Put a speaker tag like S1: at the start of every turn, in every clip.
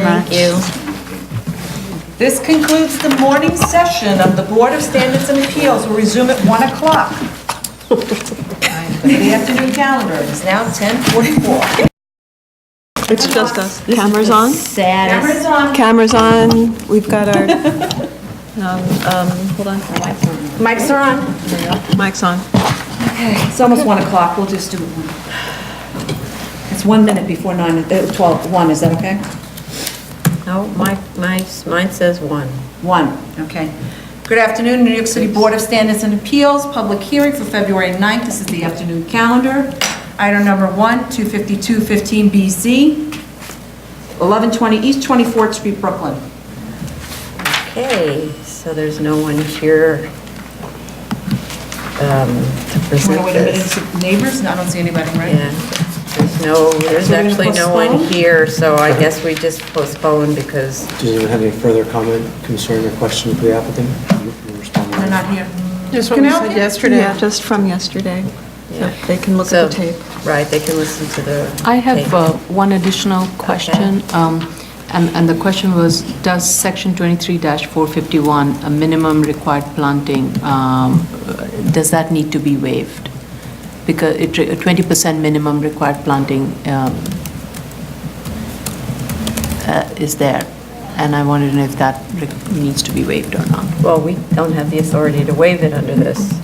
S1: Thank you.
S2: This concludes the morning session of the Board of Standards and Appeals. We'll resume at 1 o'clock. The afternoon calendar is now 10:44.
S3: It's just us. Cameras on?
S1: Saddest.
S3: Cameras on. We've got our, um, um, hold on.
S4: Mics are on.
S3: Mic's on.
S4: It's almost 1 o'clock, we'll just do it. It's one minute before 9, uh, 12, 1, is that okay?
S1: No, my, my, mine says one.
S4: 1, okay.
S2: Good afternoon, New York City Board of Standards and Appeals, public hearing for February 9th. This is the afternoon calendar. Item number 1, 25215 BZ, 1120 East 24th Street, Brooklyn.
S1: Okay, so there's no one here um, to
S2: Wait
S1: present
S2: a minute,
S1: this.
S2: is it neighbors? No, I don't see anybody, right?
S1: Yeah, there's no, there's
S2: So we're gonna
S1: actually no one
S2: postpone?
S1: here, so I guess we just postpone because
S5: Does anyone have any further comment, concern, or question for the applicant? You can respond.
S2: They're not here.
S6: Just
S2: what we said
S6: yesterday.
S3: Yeah, just from yesterday. So they can look
S1: So,
S3: at the tape.
S1: right, they can listen to the.
S7: I have
S1: tape.
S7: uh, one additional question, um, and and the question was, does Section 23-451, a minimum required planting, um, does that need to be waived? Because it re- 20% minimum required planting um, uh, is there, and I wanted to know if that re- needs to be waived or not.
S1: Well, we don't have the authority to waive it under this.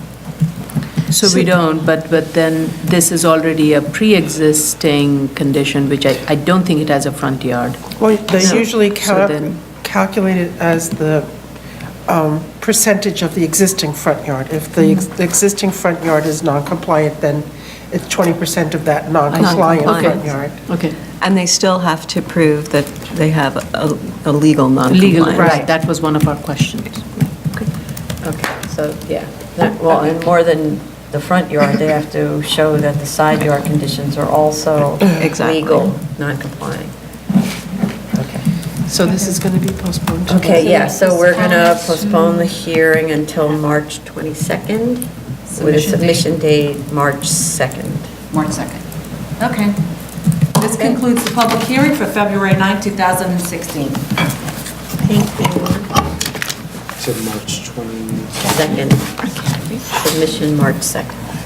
S7: So we don't, but, but then this is already a pre-existing condition, which I, I don't think it has a front yard.
S6: Well, they
S7: No.
S6: usually
S7: So
S6: cal-
S7: then-
S6: calculate it as the um, percentage of the existing front yard. If the ex- the existing front yard is non-compliant, then it's 20% of that non-compliant front
S7: Non-compliant.
S6: yard.
S7: Okay.
S3: And they still have to prove that they have a a legal
S7: Legal,
S3: non-compliance.
S7: right, that was one of our questions.
S1: Okay, so, yeah, that- well, and more than the front yard, they have to show that the side yard conditions are also
S3: Exactly.
S1: legal, non-compliant. Okay.
S6: So this is going to be postponed to...
S1: Okay, yeah, so we're going to postpone the hearing until March 22nd with a
S2: Submission date.
S1: submission date, March 2nd.
S2: March 2nd. Okay. This concludes the public hearing for February 9th, 2016.
S5: Is it March 20?
S1: Second, submission March 2nd.